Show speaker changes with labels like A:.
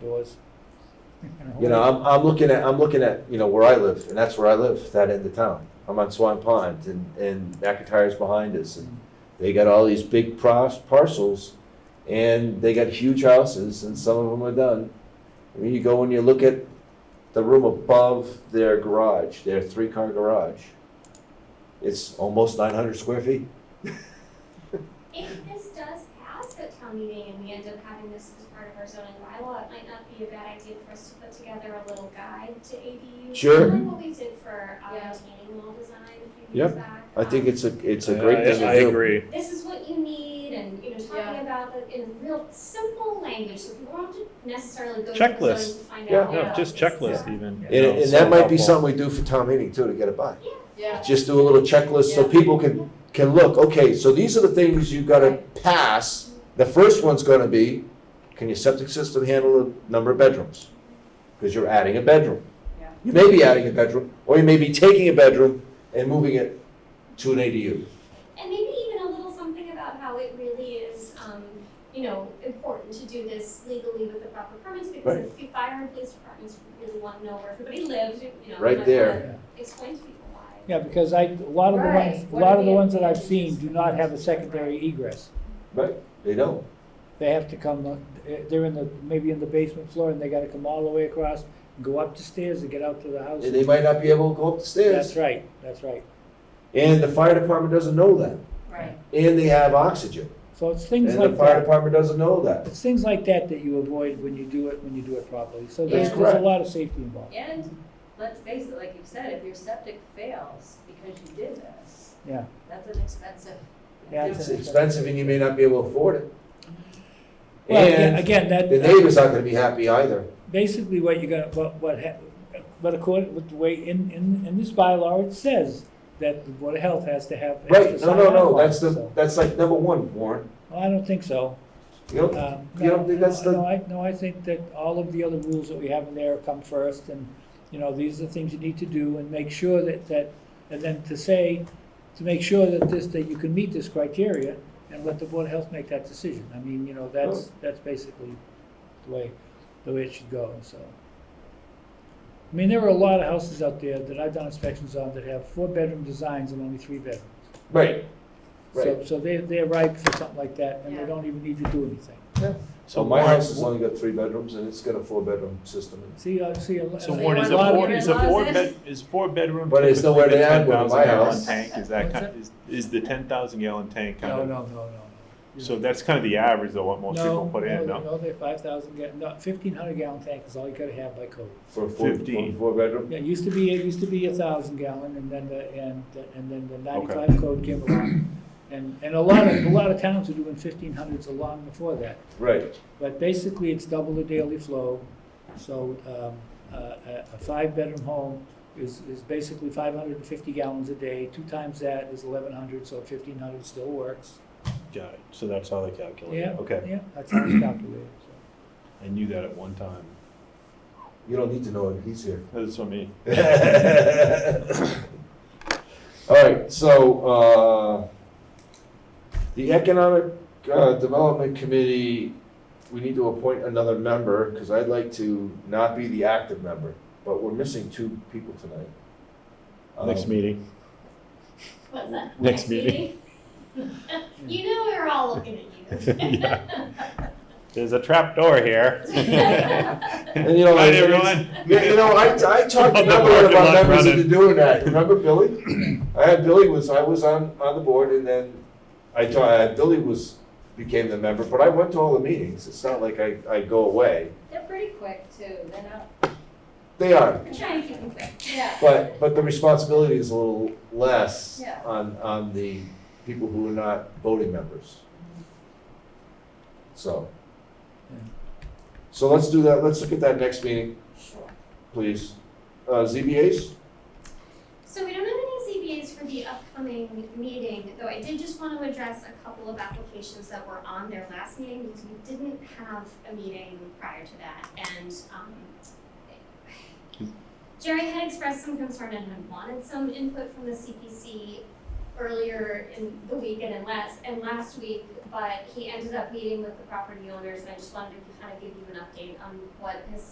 A: doors.
B: You know, I'm, I'm looking at, I'm looking at, you know, where I live, and that's where I live, that end of town. I'm on Swan Pond, and, and McIntyre's behind us, and they got all these big pros- parcels, and they got huge houses, and some of them are done. I mean, you go and you look at the room above their garage, their three-car garage. It's almost nine hundred square feet.
C: If this does pass at town meeting and we end up having this as part of our zoning bylaw, it might not be a bad idea for us to put together a little guide to ADUs.
B: Sure.
C: Kind of like what we did for um,
D: Yeah.
C: retaining wall design a few
B: Yep.
C: years back.
B: I think
C: Um,
B: it's a, it's a great thing to do.
A: I agree.
C: This is what you need and, you know, talking about it in real simple language, so people don't have to necessarily go to the
A: Checklist.
C: zoning to find out.
A: Yeah,
C: what
A: no, just
C: this is.
A: checklist even. you
B: And,
A: know,
B: and
A: so
B: that might be
A: helpful.
B: something we do for town meeting too, to get it by.
D: Yeah.
B: just do a little checklist so
D: Yeah.
B: people can, can look, okay, so these are the things you gotta pass. The first one's gonna be, can your septic system handle the number of bedrooms? Because you're adding a bedroom.
D: Yeah.
B: You may be adding a bedroom, or you may be taking a bedroom and moving it to an ADU.
C: And maybe even a little something about how it really is, um, you know, important to do this legally with the proper permits, because
B: Right.
C: if the fire and police departments really want to know where everybody lives, you you know.
B: Right
C: and I
B: there.
C: wanna Explain to people why.
A: Yeah, because I, a lot of the ones,
D: Right.
A: a lot of the
D: What are
A: ones
D: the
A: that I've seen do not have a
D: advantages?
A: secondary egress.
B: They don't.
A: They have to come, uh, they're in the, maybe in the basement floor and they gotta come all the way across, go up the stairs and get out to the house.
B: And they might not be able to go up the
A: That's
B: stairs.
A: right, that's right.
B: And the fire department doesn't know that.
D: Right.
B: And they have oxygen.
A: So it's
B: And
A: things
B: the
A: like
B: fire
A: that,
B: department doesn't know that.
A: it's things like that that you avoid when you do it, when you do it properly. So
D: That's
A: there's, there's a
B: correct.
A: lot of safety involved.
D: And let's face it, like you said, if your septic fails because you did this,
A: Yeah,
D: that's an expensive.
A: Yeah,
B: It's expensive and you may not be able to afford it.
A: well, again-
B: And-
A: again, that.
B: The neighbor's not gonna be happy either.
A: basically what you're gonna, what, what, hap- but according, with the way, in, in, in this bylaw, it says that the Board of Health has to have.
B: Right,
A: extra
B: no, no,
A: sign-off
B: no,
A: on it,
B: that's the,
A: so-
B: that's like number one, Warren.
A: Well, I don't think so.
B: You know,
A: Um,
B: You don't
A: no,
B: think that's
A: no,
B: the-
A: No, I, no, I think that all of the other rules that we have in there come first, and, you know, these are the things you need to do, and make sure that, that, and then to say, to make sure that this, that you can meet this criteria, and let the Board of Health make that decision. I mean, you know, that's, that's basically the way, the way it should go, so. I mean, there are a lot of houses out there that I've done inspections on that have four-bedroom designs and only three bedrooms.
B: right,
A: So,
B: right.
A: so they, they're ripe for something like that, and they
D: Yeah.
A: don't even need to do anything.
B: So my house has only got three bedrooms and it's got a four-bedroom system.
A: See, I see a lot.
E: So
A: a
E: Warren, is a
A: lot of
E: four,
A: people-
E: is a
D: Loves
E: four
D: it.
E: bed, is four bedroom?
B: But it's
E: typically
B: nowhere
E: the
B: to add one in
E: 10,000
B: my
E: gallon
B: house.
E: Tank, is that
A: What's
E: kind, is, is the ten thousand gallon tank
A: No,
E: kind of,
A: no, no, no.
E: so that's kind of the average of what most people put in,
A: No,
E: no?
A: no, they're five thousand gallon, no, fifteen hundred gallon tank is all you gotta have by code.
B: For a four, for a
E: Fifteen.
B: four-bedroom?
A: Yeah, it used to be, it used to be a thousand gallon and then the, and, and then the ninety-five code came along. And, and a lot of, a lot of towns are doing fifteen hundreds long before that.
B: Right,
A: But basically, it's double the daily flow. So um, uh, a a five-bedroom home is, is basically 550 gallons a day. Two times that is 1,100, so 1,500 still works.
E: Got it, so that's how they calculate
A: Yeah.
E: it, okay.
A: Yeah, that's how it's calculated. so.
E: I knew that at one time,
B: you don't need to know it, he's here.
E: that's what I mean.
B: All right, so, uh, the Economic uh, Development Committee, we need to appoint another member, because I'd like to not be the active member, but we're missing two people tonight.
E: Next
B: Um,
E: meeting,
C: What's that?
E: Next meeting.
C: You know we were all looking at you.
E: there's a trap door here.
B: And you know,
E: Night,
B: it's-
E: everyone.
B: Yeah, you know, I, I talked to
E: On the
B: Billy
E: parking
B: about
E: lot
B: members into
E: running.
B: doing that. Remember Billy? I had Billy was, I was on, on the board and then I taught, I- Billy was, became the member, but I went to all the meetings. It's not like I, I go away.
D: They're pretty quick too, they're not,
B: They are,
C: I'm trying to keep them quick.
D: yeah.
B: but, but the responsibility is a little less
D: Yeah.
B: on, on the people who are not voting members. So.
A: Yeah.
B: So let's do that. Let's look at that next meeting,
D: Sure.
B: please. Uh, ZBAs?
C: So we don't have any ZBAs for the upcoming meeting, though I did just want to address a couple of applications that were on their last meeting because we didn't have a meeting prior to that and, um, Jerry had expressed some concern and had wanted some input from the CPC earlier in the week and in last, and last week but he ended up meeting with the property owners, and I just wanted to kind of give you an update on what his